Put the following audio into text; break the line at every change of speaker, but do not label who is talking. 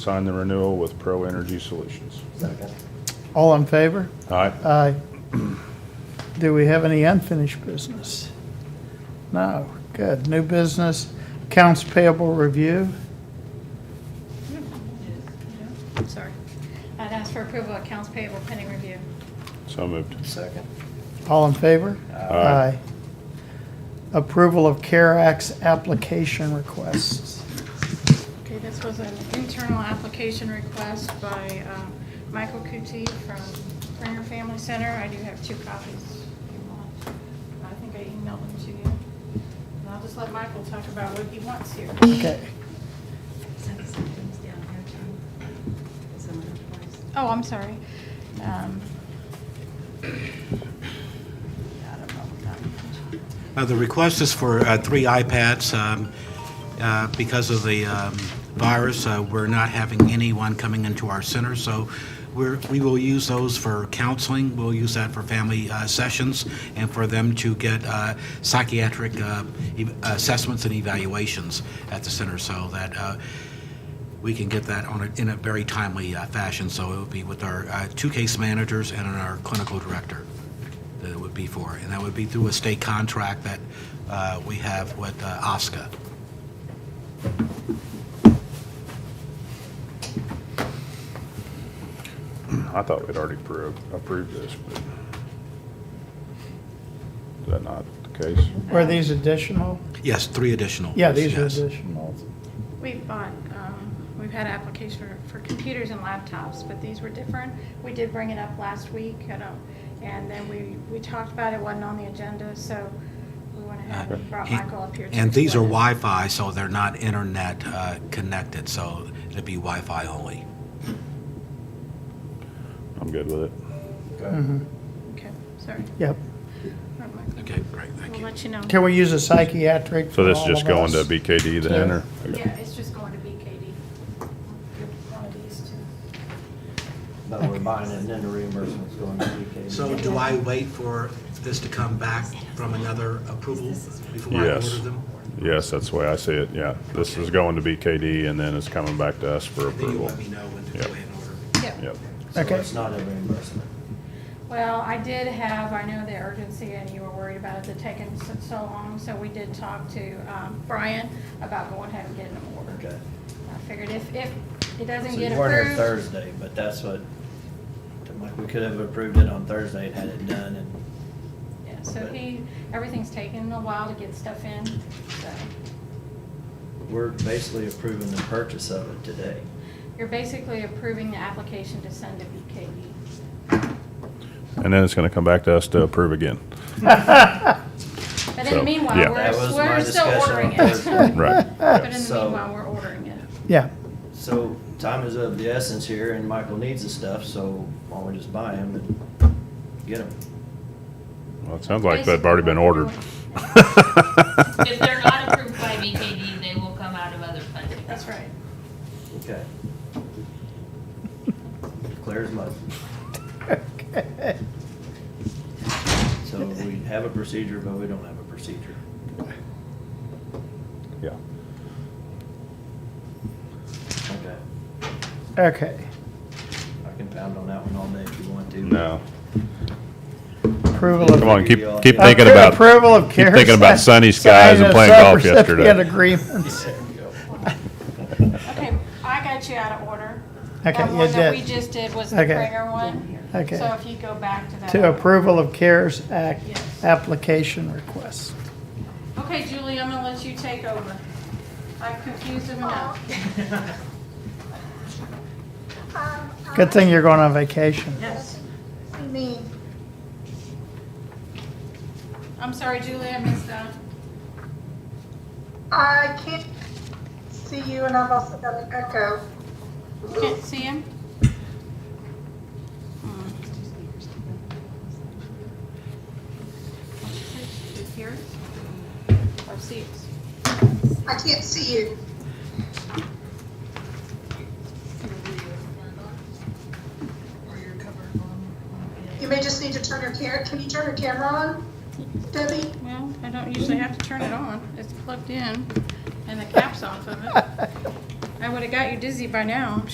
Sign the renewal with Pro Energy Solutions.
Second.
All in favor?
Aye.
Aye. Do we have any unfinished business? No, good. New business, accounts payable review.
Sorry. I'd ask for approval of accounts payable pending review.
So moved.
Second.
All in favor?
Aye.
Approval of CARE Act's application requests.
Okay, this was an internal application request by um, Michael Kuti from Bringer Family Center. I do have two copies if you want. I think I emailed them to you. And I'll just let Michael talk about what he wants here.
Okay.
Send some things down here too. Is that what it was?
Oh, I'm sorry. Um, I don't know what that means.
Uh, The request is for uh, three iPads. um, uh, Because of the um, virus, uh, we're not having anyone coming into our center, so we're, we will use those for counseling, we'll use that for family uh, sessions, and for them to get uh, psychiatric uh, e- assessments and evaluations at the center, so that uh, we can get that on, a- in a very timely uh, fashion. So it would be with our uh, two case managers and our clinical director that it would be for. And that would be through a state contract that uh, we have with uh, OSCA.
I thought we'd already approved, approved this, but is that not the case?
Were these additional?
Yes, three additional.
Yeah, these are
Yes.
additional.
We've bought, um, we've had applications for, for computers and laptops, but these were different. We did bring it up last week, I don't, and then we, we talked about it, wasn't on the agenda, so we went ahead and brought Michael up here. to
Uh, And these are
explain it.
Wi-Fi, so they're not internet uh, connected, so it'd be Wi-Fi only.
I'm good with it.
Good.
Okay, sorry.
Mm-hmm. Yep.
All right, Michael,
Okay, great, thank
We'll
you.
let you know.
Can we use a psychiatric
So
for
this
all
is just
of
going to
us?
BKD then, or?
Yeah, it's just going to BKD. One of these two.
But we're buying it and then the reimbursement's going to BK.
So do I wait for this to come back from another approval before I
Yes.
order them?
Yes, that's the way I see it, yeah. This is going to BKD and then it's coming back to us for
Then you
approval.
let me know when to
Yep.
go ahead and order.
Yep.
Yep.
So
Okay.
it's not a reimbursement.
Well, I did have, I know the urgency and you were worried about it, it taking so so long, so we did talk to um, Brian about going ahead and getting them ordered.
Okay.
I figured if, if it doesn't
So
get
you weren't here
approved,
Thursday, but that's what, we could have approved it on Thursday and had it done and
yeah, so he, everything's taking a while to get stuff in, so
we're basically approving the purchase of it today.
you're basically approving the application to send to E. BKD.
And then it's going to come back to us to approve again.
But in
So,
the
yeah.
meanwhile,
That
we're,
was my
we're still
discussion
ordering
on
it.
Thursday.
Right.
But in the
So-
meanwhile, we're ordering it.
Yeah,
So time is of the essence here and Michael needs the stuff, so why don't we just buy him and get him?
Well, it sounds like they've already been ordered.
If they're not approved by BKD, they will come out of other funding.
That's right.
Okay. Clear as mud.
okay.
So we have a procedure, but we don't have a procedure.
Yeah.
Okay.
Okay.
I can pound on that one all day if you want to.
No.
Approval of
Come on, keep, keep
Yeah.
thinking about.
Approval of
Keep
CARES
thinking about
Act
sunny skies and
signing
playing golf
subrecipient
yesterday.
agreements.
There we go.
Okay, I got you out of order.
Okay,
That
you
one that we
did.
just did was the
Okay.
Pranger one.
Okay.
So if you go back to that.
To approval of CARES Act
Yes.
application requests.
Okay, Julie, I'm gonna let you take over. I've confused him enough.
Good thing you're going on vacation.
Yes. Me. I'm sorry, Julie, I missed that.
I can't see you, and I've also got an echo.
Can't see him? Here? Or see us?
I can't see you. You may just need to turn your camera. Can you turn your camera on, Debbie?
Well, I don't usually have to turn it on. It's plugged in and the cap's off of it. I would've got you dizzy by now, I'm